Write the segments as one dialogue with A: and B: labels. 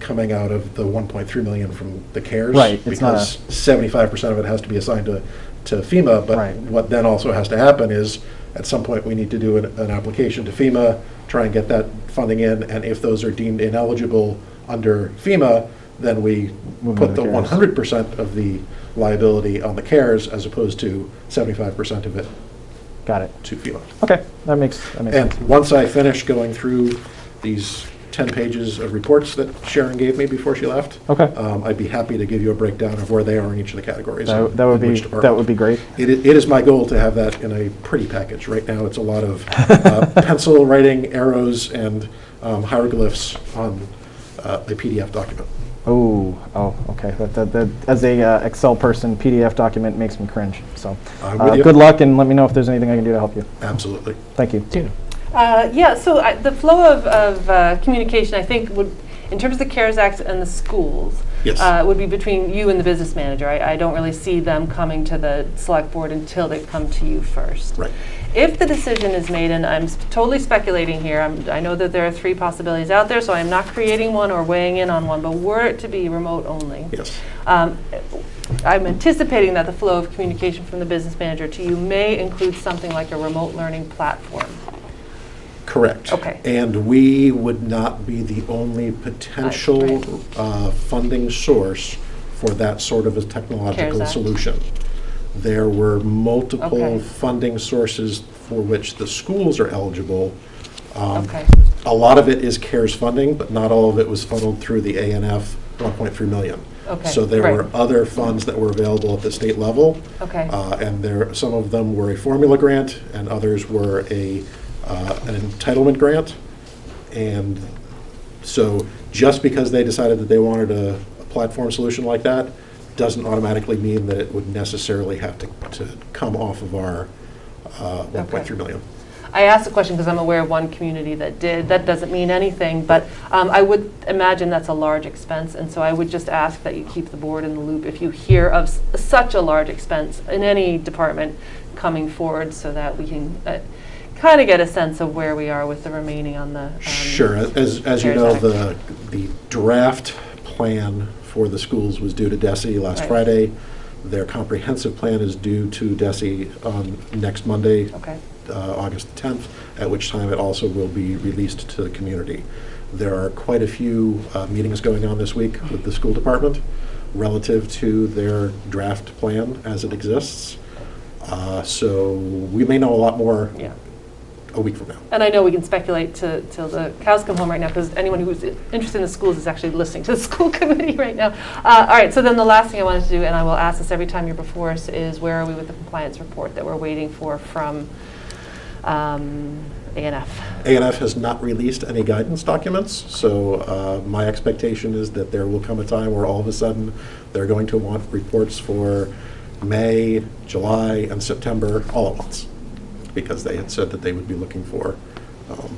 A: coming out of the 1.3 million from the CARES.
B: Right, it's not
A: Because 75% of it has to be assigned to, to FEMA. But
B: Right.
A: what then also has to happen is, at some point, we need to do an, an application to FEMA, try and get that funding in, and if those are deemed ineligible under FEMA, then we
B: Move
A: put
B: into
A: the
B: CARES.
A: 100% of the liability on the CARES as opposed to 75% of it
B: Got it.
A: to FEMA.
B: Okay, that makes, that makes
A: And
B: sense.
A: once I finish going through these 10 pages of reports that Sharon gave me before she left.
B: Okay.
A: um, I'd be happy to give you a breakdown of where they are in each of the categories.
B: That
A: and
B: that would
A: in
B: be,
A: which
B: that
A: department.
B: would be great.
A: It, i- it is my goal to have that in a pretty package. Right now, it's a lot of uh, pencil writing, arrows, and um, hieroglyphs on uh, a PDF document.
B: Oh, oh, okay. That, that, that, as a uh, Excel person, PDF document makes me cringe. So,
A: I'm
B: uh,
A: with you.
B: good luck, and let me know if there's anything I can do to help you.
A: Absolutely.
B: Thank you.
C: Uh, Yeah, so I- the flow of, of uh, communication, I think, would, in terms of the CARES Act and the schools,
A: Yes.
C: uh, would be between you and the business manager. I, I don't really see them coming to the select board until they come to you first.
A: Right.
C: If the decision is made, and I'm s- totally speculating here, I'm, I know that there are three possibilities out there, so I'm not creating one or weighing in on one, but were it to be remote only.
A: Yes.
C: Um, I'm anticipating that the flow of communication from the business manager to you may include something like a remote learning platform.
A: Correct.
C: Okay.
A: And we would not be the only potential
C: right.
A: uh, funding source for that sort of a
C: CARES
A: technological
C: Act.
A: solution. There were multiple
C: Okay.
A: funding sources for which the schools are eligible. Um,
C: Okay.
A: A lot of it is CARES funding, but not all of it was funneled through the ANF 1.3 million.
C: Okay,
A: So there
C: right.
A: were other funds that were available at the state level.
C: Okay.
A: Uh, And there, some of them were a formula grant, and others were a, uh, an entitlement grant. And so just because they decided that they wanted a a platform solution like that, doesn't automatically mean that it would necessarily have to, to come off of our uh, 1.3 million.
C: I asked the question because I'm aware of one community that did. That doesn't mean anything, but um, I would imagine that's a large expense, and so I would just ask that you keep the board in the loop if you hear of s- such a large expense in any department coming forward, so that we can kind of get a sense of where we are with the remaining on the. um,
A: Sure, as, as you
C: CARES
A: know,
C: Act.
A: the, the draft plan for the schools was due to DESI last
C: Right.
A: Friday. Their comprehensive plan is due to DESI on next Monday,
C: Okay,
A: uh, August 10th, at which time it also will be released to the community. There are quite a few uh, meetings going on this week with the school department relative to their draft plan as it exists. Uh, So we may know a lot more
C: yeah.
A: a week from now.
C: And I know we can speculate to- till the cows come home right now, because anyone who's i- interested in the schools is actually listening to the school committee right now. Uh, All right, so then the last thing I wanted to do, and I will ask this every time you're before us, is where are we with the compliance report that we're waiting for from um, ANF?
A: ANF has not released any guidance documents, so uh, my expectation is that there will come a time where all of a sudden, they're going to want reports for May, July, and September all at once, because they had said that they would be looking for um,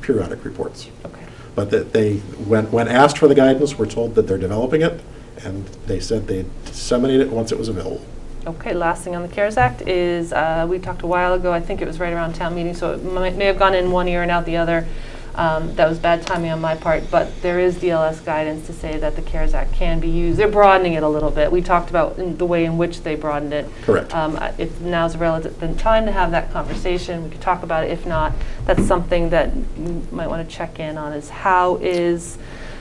A: periodic reports.
C: Okay.
A: But that they, when, when asked for the guidance, were told that they're developing it, and they said they'd disseminate it once it was available.
C: Okay, last thing on the CARES Act is, uh, we talked a while ago, I think it was right around town meeting, so it might- may have gone in one ear and out the other. Um, That was bad timing on my part, but there is DLS guidance to say that the CARES Act can be used. They're broadening it a little bit. We talked about in the way in which they broadened it.
A: Correct.
C: Um, I- If now's a relevant time to have that conversation, we could talk about it. If not, that's something that you might want to check in on, is how is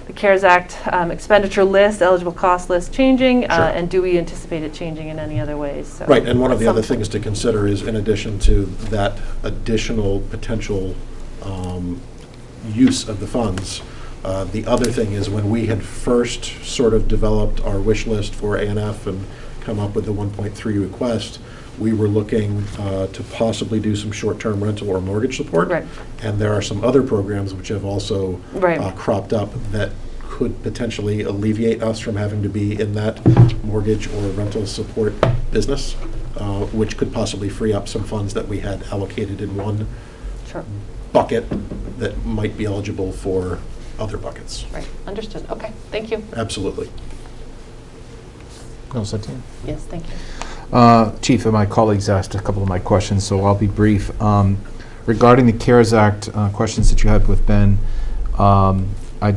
C: the CARES Act um, expenditure list, eligible cost list changing? uh,
A: Sure.
C: And do we anticipate it changing in any other ways? So
A: Right, and one of the other
C: some-
A: things to consider is, in addition to that additional potential um, use of the funds, uh, the other thing is when we had first sort of developed our wish list for ANF and come up with the 1.3 request, we were looking uh, to possibly do some short-term rental or mortgage support.
C: Right.
A: And there are some other programs which have also
C: Right.
A: uh, cropped up that could potentially alleviate us from having to be in that mortgage or rental support business, uh, which could possibly free up some funds that we had allocated in one
C: Sure,
A: bucket that might be eligible for other buckets.
C: right, understood. Okay, thank you.
A: Absolutely.
D: No, it's up to you.
C: Yes, thank you.
D: Uh, Chief, and my colleagues asked a couple of my questions, so I'll be brief. Um, Regarding the CARES Act, uh, questions that you had with Ben, um,